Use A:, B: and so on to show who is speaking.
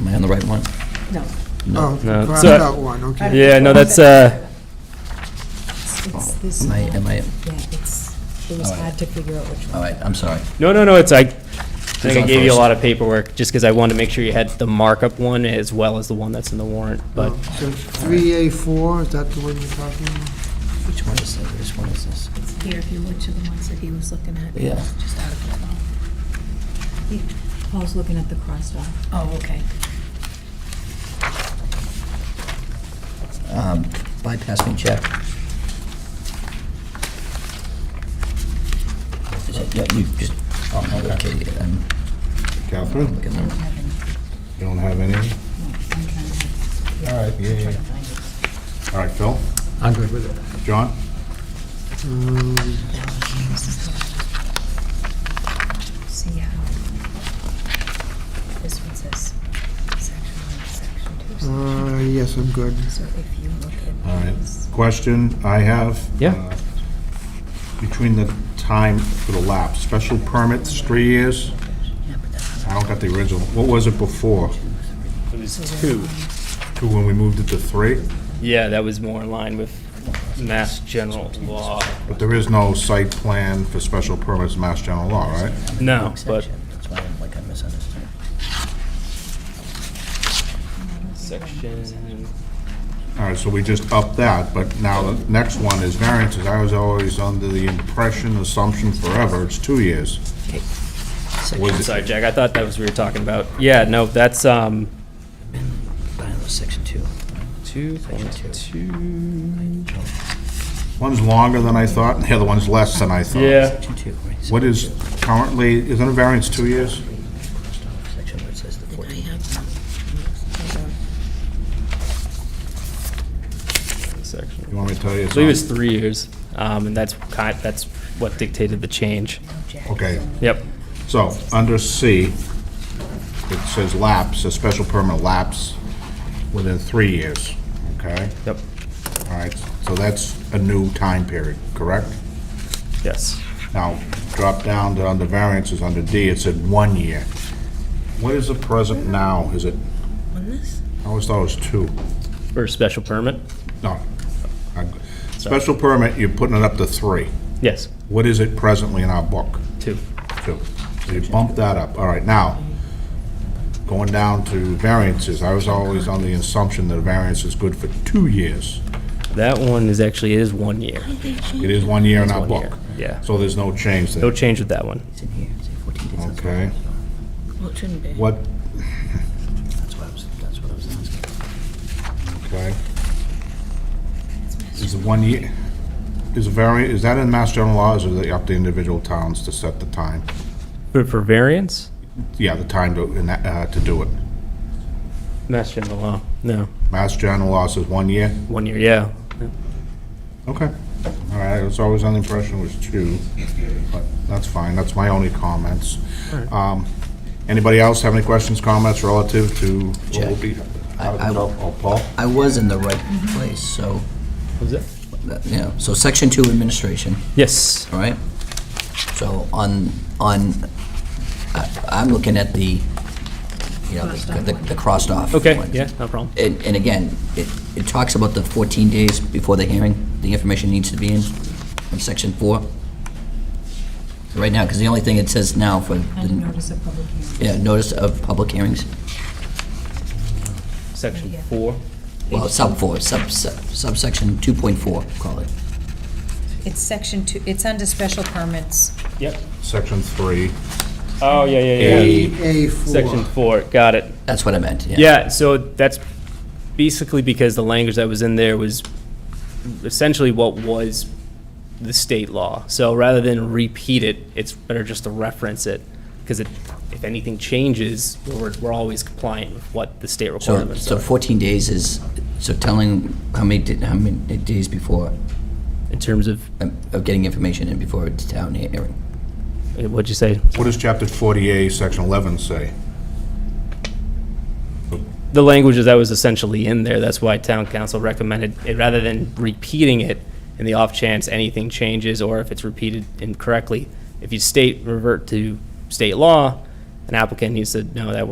A: Am I on the right one?
B: No.
A: No.
C: Oh,
D: No.
C: crossed
D: So-
C: out one, okay.
D: Yeah, no, that's, uh,
B: It's- it's
A: Oh,
B: this
A: Am I,
B: one.
A: am I,
B: Yeah, it's, it was
A: All right.
B: hard to figure out which
A: all
B: one.
A: right, I'm sorry.
D: no, no, no, it's, I think I
A: on
D: gave you a
A: first.
D: lot of paperwork, just because I wanted to make sure you had the markup one as well as the one that's in the warrant, but,
C: Oh, So 3A4, is that the one you're talking about?
A: Which one is this? Which one is this?
E: It's here, if you look to the ones that he was looking at.
A: Yeah.
E: Just out of the
B: He- Paul's looking at the crossed off.
E: Oh, okay.
A: Mm. Um, Bypassing check. Is it- Yeah, you just, oh, no, okay, yeah, I'm
F: Catherine,
A: looking at them.
F: you don't have any? All right, yeah, yeah. All right, Phil?
G: I'm good with it.
F: John?
E: See how this one says section one, section two. section-
D: Hmm.
C: Uh, Yes, I'm good.
E: So if you look at.
F: All right.
E: these-
F: Question I have.
D: Yeah.
F: uh, Between the time for the lapse, special permits, three years?
E: Yeah, but that's
F: I don't got the original. What was it before?
D: it was two.
F: Two, when we moved it to three?
D: Yeah, that was more in line with mass general law.
F: But there is no site plan for special permits, in Mass General Law, right?
D: No, but
A: Section. That's why I'm like, I misunderstood.
D: section,
F: All right, so we just upped that, but now the next one is variances. I was always under the impression, assumption forever, it's two years.
A: Section,
F: Was-
D: sorry, Jack, I thought that was what we were talking about. Yeah, no, that's, um,
A: I don't know, uh, section two.
D: two,
A: Section two.
F: One's longer than I thought, and the other one's less than I thought.
D: yeah,
A: Section two, right?
F: What is currently, isn't a variance two years?
A: Section where it says the
E: I
A: 14.
E: have some. Hold on.
D: section.
F: You want me to tell you?
D: I
F: it's
D: believe
F: not?
D: it's three years, um, and that's kind, that's what dictated the change.
F: Okay,
D: Yep.
F: so, under C, it says lapse, a special permit lapse within three years, okay?
D: Yep.
F: All right, so that's a new time period, correct?
D: Yes.
F: Now, drop down to under variances, under D, it said one year. What is the present now? Is it,
E: On this?
F: I always thought it was two.
D: For a special permit?
F: No. I- Special permit, you're putting it up to three.
D: Yes,
F: What is it presently in our book?
D: two.
F: Two. So you bump that up. All right, now, going down to variances, I was always on the assumption that a variance is good for two years.
D: That one is actually, it is one year.
F: It is one year in our
D: one year,
F: book.
D: yeah.
F: So there's no change
D: No
F: there.
D: change with that one.
A: It's in here, it's in 14 days. That's
F: Okay.
E: Well, it shouldn't be.
F: What,
A: That's what I was, that's what I was asking.
F: okay. Is it one year, is a variant, is that in Mass General Law, or is it up to individual towns to set the time?
D: But for variance?
F: Yeah, the time to, in that, uh, to do it.
D: Mass general law. No,
F: Mass General Law says one year?
D: one year, yeah.
F: Okay. All right, I was always under the impression it was two, but that's fine, that's my only comments. Um, Anybody else have any questions, comments relative to what will be?
A: I- I-
F: Oh, Paul?
A: I was in the right place, so,
D: Was it?
A: that- yeah, so section two administration,
D: Yes,
A: all right? So on, on, I- I'm looking at the, you know, the- the the crossed off.
D: okay,
A: ones.
D: yeah, no problem.
A: And, and again, it, it talks about the 14 days before the hearing, the information needs to be in, in section four. Right now, because the only thing it says now for, the-
B: And notice of public hearing.
A: yeah, notice of public hearings,
D: Section four.
A: well, sub four, sub, sub- subsection 2.4, call it.
H: It's section two, it's under special permits.
D: Yep.
F: Section three.
D: Oh, yeah, yeah, yeah. Section
C: 3A4.
D: four, got it.
A: That's what I meant, yeah.
D: Yeah, so that's basically because the language that was in there was essentially what was the state law. So rather than repeat it, it's better just to reference it, because it, if anything changes, we're, we're always compliant with what the state
A: So,
D: requirements
A: so
D: are.
A: 14 days is, so telling how many, di- how many days before,
D: In terms of,
A: um, of getting information in before it's town hearing.
D: eh, what'd you say?
F: What does chapter 48, section 11 say?
D: The language that was essentially in there, that's why town council recommended, it rather than repeating it in the off chance anything changes or if it's repeated incorrectly, if you state, revert to state law, an applicant needs to know that